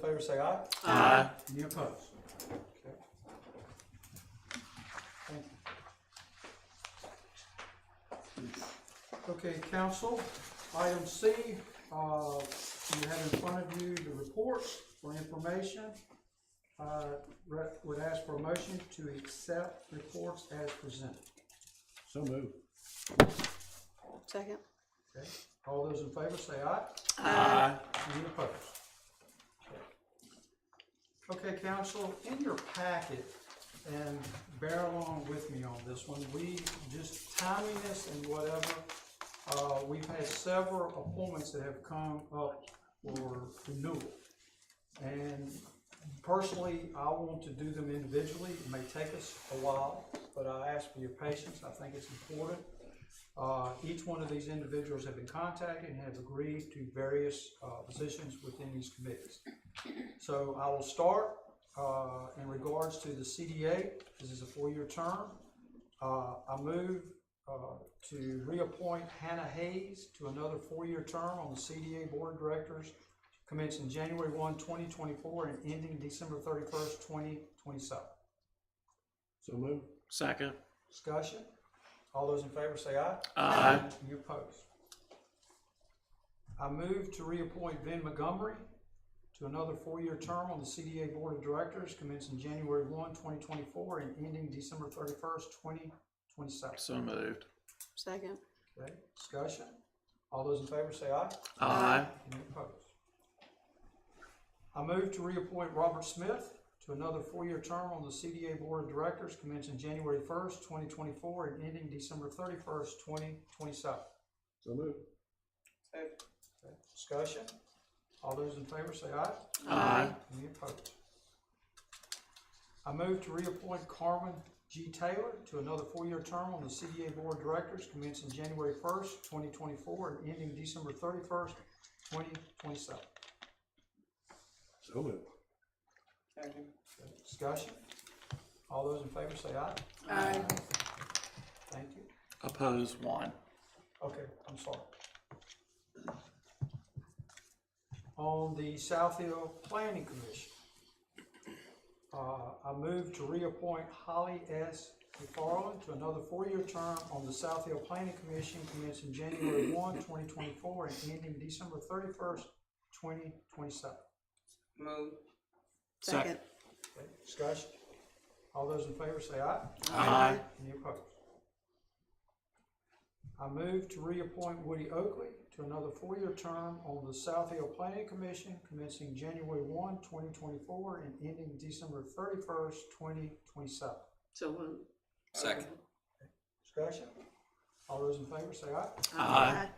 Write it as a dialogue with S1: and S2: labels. S1: favor say aye.
S2: Aye.
S1: Any opposed? Okay. Thank you. Okay, council, item C, uh, you have in front of you the report for information. Uh, re- would ask for a motion to accept reports as presented.
S3: So moved.
S2: Second.
S1: Okay, all those in favor say aye.
S3: Aye.
S1: Any opposed? Okay, council, in your packet, and bear along with me on this one, we, just timeliness and whatever, uh, we've had several appointments that have come up for renewal. And personally, I want to do them individually, it may take us a while, but I ask for your patience, I think it's important. Uh, Each one of these individuals have been contacted and have agreed to various uh, positions within these committees. So I will start uh, in regards to the CDA. This is a four-year term. Uh, I move uh, to reappoint Hannah Hayes to another four-year term on the CDA Board of Directors commencing January 1, 2024 and ending December 31st, 2027.
S3: So moved.
S4: Second.
S1: Discussion? All those in favor say aye.
S4: Aye.
S1: Any opposed? I move to reappoint Ben Montgomery to another four-year term on the CDA Board of Directors commencing January 1, 2024 and ending December 31st, 2027.
S4: So moved.
S2: Second.
S1: Okay, discussion? All those in favor say aye.
S4: Aye.
S1: Any opposed? I move to reappoint Robert Smith to another four-year term on the CDA Board of Directors commencing January 1st, 2024 and ending December 31st, 2027.
S3: So moved.
S1: Okay, Discussion? All those in favor say aye.
S4: Aye.
S1: Any opposed? I move to reappoint Carmen G. Taylor to another four-year term on the CDA Board of Directors commencing January first, twenty twenty-four and ending December thirty-first, twenty twenty-seven.
S3: So moved.
S1: Discussion? All those in favor say aye.
S2: Aye.
S1: Thank you.
S4: Oppose one.
S1: Okay, I'm sorry. On the South Hill Planning Commission, uh, I move to reappoint Holly S. McFarland to another four-year term on the South Hill Planning Commission commencing January 1, 2024, and ending December thirty-first, twenty twenty-seven.
S5: Move.
S2: Second.
S1: Okay, discussion? All those in favor say aye.
S4: Aye.
S1: Any opposed? I move to reappoint Woody Oakley to another four-year term on the South Hill Planning Commission commencing January 1, 2024, and ending December thirty-first, twenty twenty-seven.
S2: So moved.
S5: Second.
S1: Discussion? All those in favor say aye.
S4: Aye.